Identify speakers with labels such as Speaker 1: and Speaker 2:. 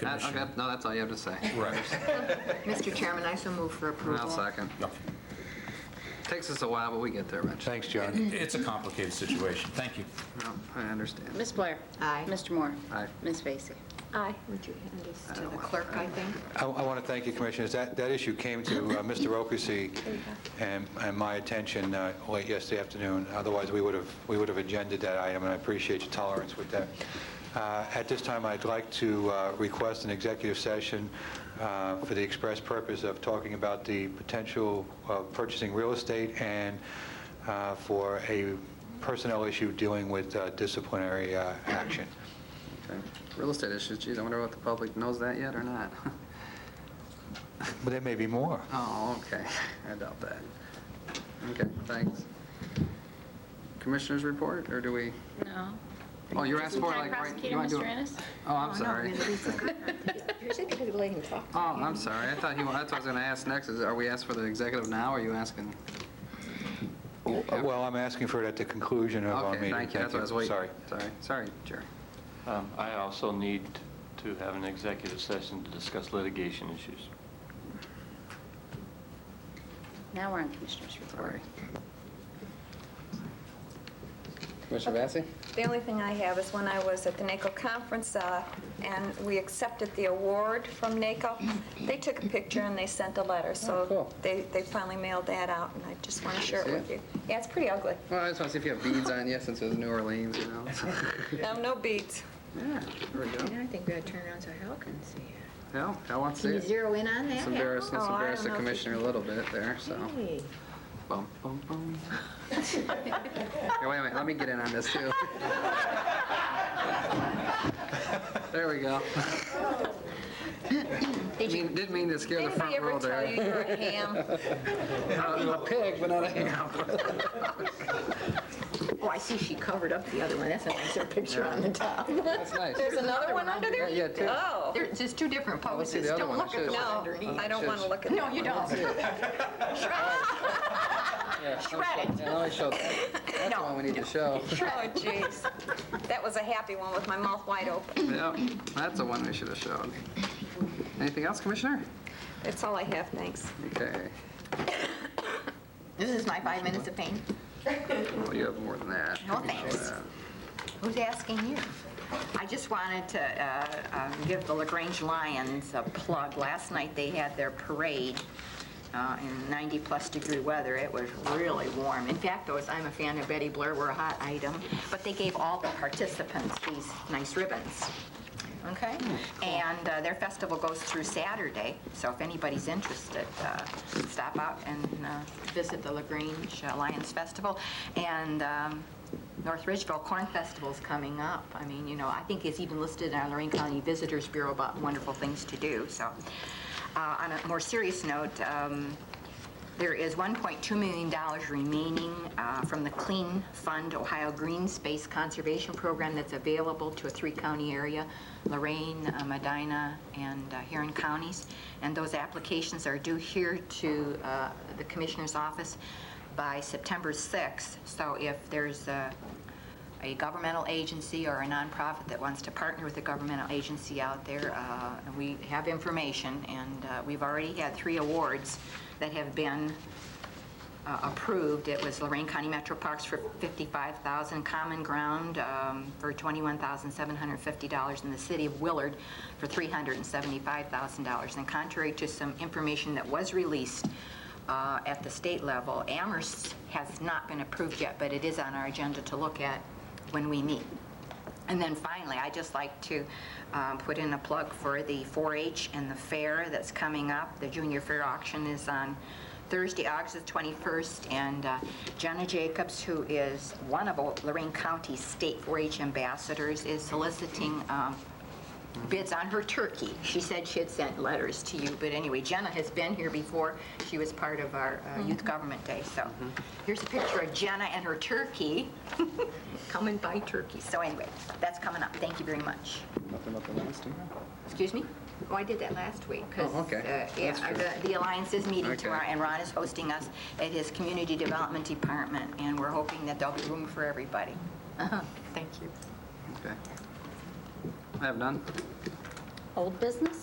Speaker 1: That-
Speaker 2: commission.
Speaker 1: Okay, no, that's all you have to say.
Speaker 2: Right.
Speaker 3: Mr. Chairman, I so move for approval.
Speaker 1: I'll second. Takes us a while, but we get there, Rich.
Speaker 4: Thanks, John.
Speaker 2: It's a complicated situation. Thank you.
Speaker 1: No, I understand.
Speaker 5: Ms. Blair?
Speaker 3: Aye.
Speaker 5: Mr. Moore?
Speaker 1: Aye.
Speaker 5: Ms. Vacy?
Speaker 3: Aye. Would you hand this to the clerk, I think?
Speaker 4: I want to thank you, Commissioners. That that issue came to uh, Mr. Okasie and and my attention uh, late yesterday afternoon. Otherwise, we would have, we would have agended that item, and I appreciate your tolerance with that. Uh, At this time, I'd like to uh, request an executive session uh, for the express purpose of talking about the potential of purchasing real estate and uh, for a personnel issue dealing with uh, disciplinary uh, action.
Speaker 1: Okay. Real estate issues, geez, I wonder if the public knows that yet or not.
Speaker 4: But there may be more.
Speaker 1: Oh, okay, I doubt that. Okay, thanks. Commissioners report, or do we?
Speaker 5: No.
Speaker 1: Oh, you're asking for
Speaker 5: Time
Speaker 1: like. right- you
Speaker 5: prosecutor,
Speaker 1: wanna do
Speaker 5: Mr.
Speaker 1: it-
Speaker 5: Ennis?
Speaker 1: Oh, I'm sorry.
Speaker 3: You're supposed to let him talk.
Speaker 1: Oh, I'm sorry, I thought you, that's what I was gonna ask next, is are we asking for the executive now, or are you asking?
Speaker 4: Well, I'm asking for it at the conclusion of our
Speaker 1: Okay,
Speaker 4: meeting.
Speaker 1: thank you, that's what I was waiting.
Speaker 4: Sorry.
Speaker 1: Sorry, sorry, Jerry.
Speaker 6: Um, I also need to have an executive session to discuss litigation issues.
Speaker 5: Now we're on Commissioners' report.
Speaker 1: Sorry. Commissioner Vacy?
Speaker 7: The only thing I have is when I was at the NACO conference uh, and we accepted the award from NACO, they took a picture and they sent a letter.
Speaker 1: Oh, cool.
Speaker 7: So they they finally mailed that out and I just want to share it with you. Yeah, it's pretty ugly.
Speaker 1: Well, I just wanna see if you have beads on you, since it was New Orleans, you know?
Speaker 7: No, no beads.
Speaker 1: Yeah, there we go.
Speaker 3: I think we ought to turn around so Hal can see it.
Speaker 1: Yeah, I want to see
Speaker 3: Can you
Speaker 1: it.
Speaker 3: zero in on that?
Speaker 1: It's embarrassing,
Speaker 7: Oh, I
Speaker 1: it's
Speaker 7: don't
Speaker 1: embarrassing
Speaker 7: know if you
Speaker 1: Commissioner a little bit there, so.
Speaker 3: Hey.
Speaker 1: Bum, bum, bum. Here, wait a minute, let me get in on this too. There we go. Mean- Didn't mean to scare the
Speaker 7: Did
Speaker 1: front
Speaker 7: anybody
Speaker 1: row
Speaker 7: ever tell you
Speaker 1: there.
Speaker 7: you're a ham?
Speaker 1: I'm a pig, but not a ham.
Speaker 3: Oh, I see she covered up the other one. That's a nicer picture on the top.
Speaker 1: That's nice.
Speaker 7: There's another one under there?
Speaker 1: Yeah, yeah, two.
Speaker 7: Oh,
Speaker 3: There's just two different
Speaker 1: Let's see
Speaker 3: poses.
Speaker 1: the other
Speaker 3: Don't
Speaker 1: one.
Speaker 3: look at the one
Speaker 7: no,
Speaker 3: underneath.
Speaker 7: I don't want to look at that.
Speaker 3: No, you don't.
Speaker 1: Shred it. No, I showed that. That's the one we need to show.
Speaker 7: Oh, jeez. That was a happy one with my mouth wide open.
Speaker 1: Yep, that's the one we should have showed. Anything else, Commissioner?
Speaker 7: That's all I have, thanks.
Speaker 1: Okay,
Speaker 3: This is my five minutes of pain.
Speaker 1: well, you have more than that.
Speaker 3: No, thanks. Who's asking you? I just wanted to uh, um, give the LaGrange Lions a plug. Last night, they had their parade uh, in 90-plus degree weather. It was really warm. In fact, those, I'm a fan of Betty Blair, were a hot item. But they gave all the participants these nice ribbons. Okay? And uh, their festival goes through Saturday, so if anybody's interested, uh, stop out and uh, visit the LaGrange uh, Lions Festival. And um, North Ridgeville Corn Festival's coming up. I mean, you know, I think it's even listed in our Lorraine County Visitors Bureau about wonderful things to do, so. Uh, On a more serious note, um, there is $1.2 million remaining uh, from the Clean Fund Ohio Green Space Conservation Program that's available to a three-county area, Lorraine, uh, Medina, and uh, Huron counties. And those applications are due here to uh, the Commissioner's office by September 6th. So if there's uh, a governmental agency or a nonprofit that wants to partner with a governmental agency out there, uh, and we have information, and uh, we've already had three awards that have been uh, approved. It was Lorraine County Metro Parks for $55,000, Common Ground um, for $21,750, and the City of Willard for $375,000. And contrary to some information that was released uh, at the state level, Amherst has not been approved yet, but it is on our agenda to look at when we meet. And then finally, I'd just like to um, put in a plug for the 4-H and the fair that's coming up. The junior fair auction is on Thursday, August 21st, and uh, Jenna Jacobs, who is one of Lorraine County's state 4-H ambassadors, is soliciting um, bids on her turkey. She said she had sent letters to you, but anyway, Jenna has been here before. She was part of our uh, Youth Government Day, so here's a picture of Jenna and her turkey. Come and buy turkey. So anyway, that's coming up. Thank you very much.
Speaker 1: Nothing but the last two.
Speaker 3: Excuse me? Oh, I did that last week, uh, because
Speaker 1: Oh, okay. That's true.
Speaker 3: the Alliance is meeting
Speaker 1: Okay.
Speaker 3: tomorrow, and Ron is hosting us at his Community Development Department, and we're hoping that there'll be room for everybody. Uh-huh. Thank you.
Speaker 1: Okay. I have none.
Speaker 5: old business?